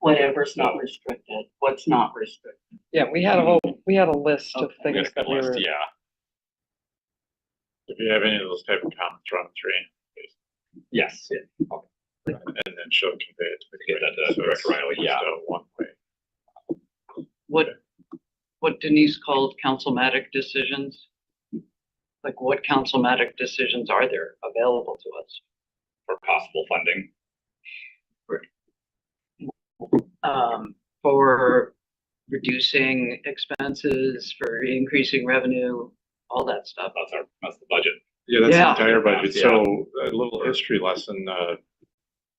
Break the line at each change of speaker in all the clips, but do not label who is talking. whatever's not restricted, what's not restricted.
Yeah, we had a whole, we had a list of
Okay.
things
Yes,
that
that
we
list,
were,
yeah. If you have any of those type of comments, run three,
Yes,
and then she'll convey it to the
Get that
committee.
to
So it's
Director Riley,
just
yeah.
a One way.
What, what Denise called councilmatic decisions. Like what councilmatic decisions are there available to us?
for possible funding.
um, for reducing expenses, for increasing revenue, all that stuff.
That's our, that's the budget.
Yeah, that's
Yeah.
the entire budget.
Yeah.
So a little history lesson, uh,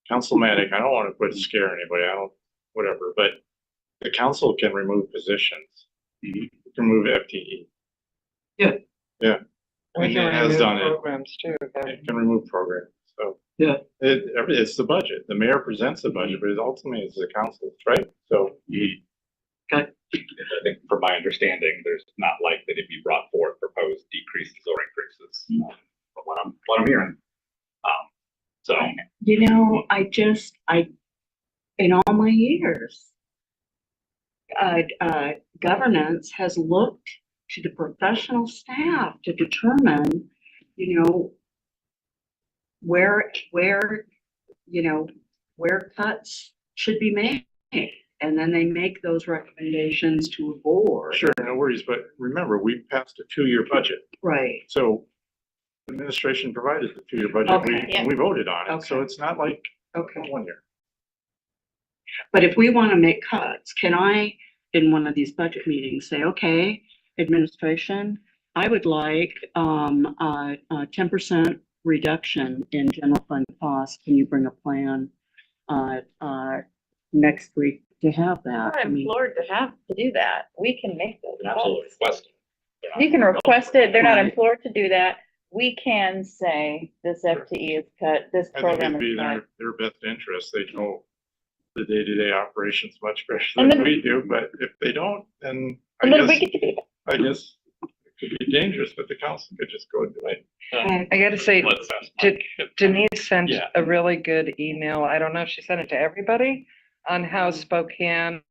councilmatic, I don't want to put scare anybody. I don't, whatever, but the council can remove positions.
Mhm.
Remove E, FTE.
Yeah.
Yeah.
we
And
can
it has
remove
done it.
programs too.
It can remove programs, so.
Yeah.
It, every- it's the budget. The mayor presents the budget, but it ultimately is the council, right? So.
Mm-hmm. I think from my understanding, there's not likely to be brought forth proposed decreases or increases.
Mm-hmm.
But what I'm, what I'm hearing. Um, so,
You know, I just, I, in all my years, uh, uh, governance has looked to the professional staff to determine, you know, where, where, you know, where cuts should be made. And then they make those recommendations to a board.
Sure, no worries, but remember, we passed a two-year budget,
Right.
so administration provided the two-year budget, we,
Okay.
and we voted on it, so
Okay.
it's not like
Okay.
one year.
But if we want to make cuts, can I, in one of these budget meetings, say, okay, administration, I would like, um, uh, uh, ten percent reduction in general fund costs. Can you bring a plan, uh, uh, next week to have that? I
I'm
mean,
implored to have to do that. We can make those
an absolute
calls.
request.
You can request it. They're not
Right.
implored to do that. We can say this FTE is cut, this
I think
program
it'd
is
be
cut.
their, their best interest, they know the day-to-day operations much better
And
than
then-
we do, but if they don't, then I
And then we
guess,
get to be,
I guess it could be dangerous, but the council could just go and do it.
okay,
I gotta say,
Let's ask
Did-
Mike if-
Denise sent
Yeah.
a really good email. I don't know if she sent it to everybody on how Spokane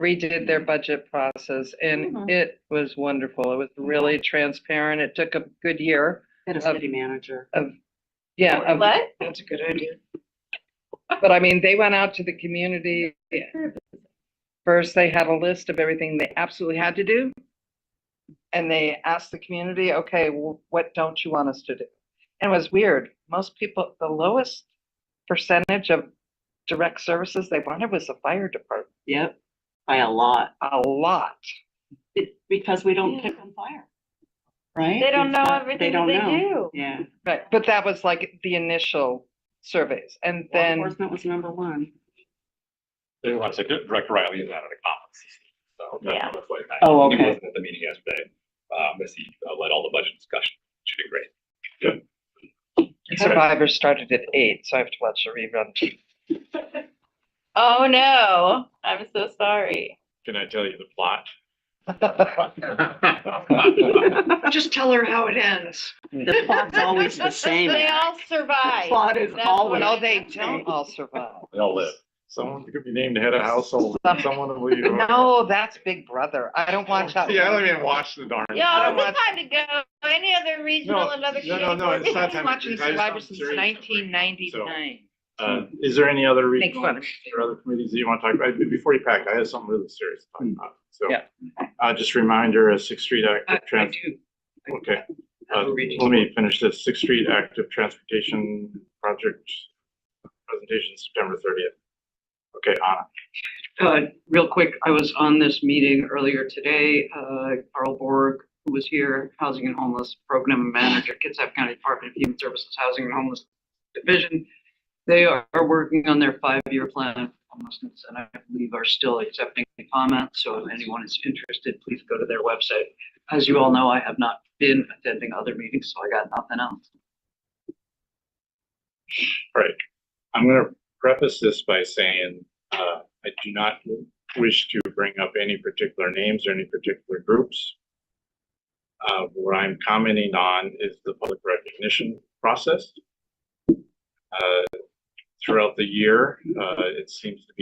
redid their budget process and
Mhm.
it was wonderful. It was really transparent. It took a good year.
Get a city manager.
Yeah. of-
what?
That's a good idea. But I mean, they went out to the community. First, they had a list of everything they absolutely had to do. And they asked the community, okay, wh- what don't you want us to do? And it was weird. Most people, the lowest percentage of direct services they wanted was the fire department,
Yep, by a lot.
a lot.
It, because we don't pick on fire. Right?
They don't know
Because
everything that
don't
they
know.
do.
Yeah.
But, but that was like the initial surveys. And
Law
then,
enforcement was number one.
They want to, Director Riley is out of the conference. So. that's
Yeah.
what it's like.
Oh,
He
okay.
wasn't at the meeting yesterday. Uh, Missy uh, led all the budget discussion. She did great.
Survivor started at eight, so I have to watch the rerun.
Oh, no. I'm so sorry.
Can I tell you the plot?
Just tell her how it ends.
The plot's always the same.
They all
The
survive.
plot is
That's
always.
what
No, they don't all survive.
They all live.
Someone could be named head of household, someone will leave.
No, that's Big Brother. I don't watch that.
Oh, See, I
one.
don't even watch the darn.
Y'all,
don't
it's time to go. Any other regional, another.
no, no, no, it's not
I've
time
been
to
watching
choose. I just
Survivor
found
since
series
nineteen ninety-nine.
Uh, is there any other
Make
regional
fun of
or other committees that you want to talk about? Before you pack, I have something really serious to talk about. So,
Yeah.
uh, just a reminder, uh, Sixth Street
I,
Active
I
Trans,
do.
okay,
have a
Uh,
reading.
let me finish this. Sixth Street Active Transportation Project presentation September thirtieth. Okay, Anna.
Uh, real quick, I was on this meeting earlier today, uh, Carl Borg, who was here, Housing and Homeless Program Manager, Kitsap County Department of Human Services Housing and Homeless Division. They are working on their five-year plan of homelessness, and I believe are still accepting comments, so if anyone is interested, please go to their website. As you all know, I have not been attending other meetings, so I got nothing else.
I'm gonna preface this by saying, uh, I do not wish to bring up any particular names or any particular groups. Uh, what I'm commenting on is the public recognition process. Uh, throughout the year, uh, it seems to be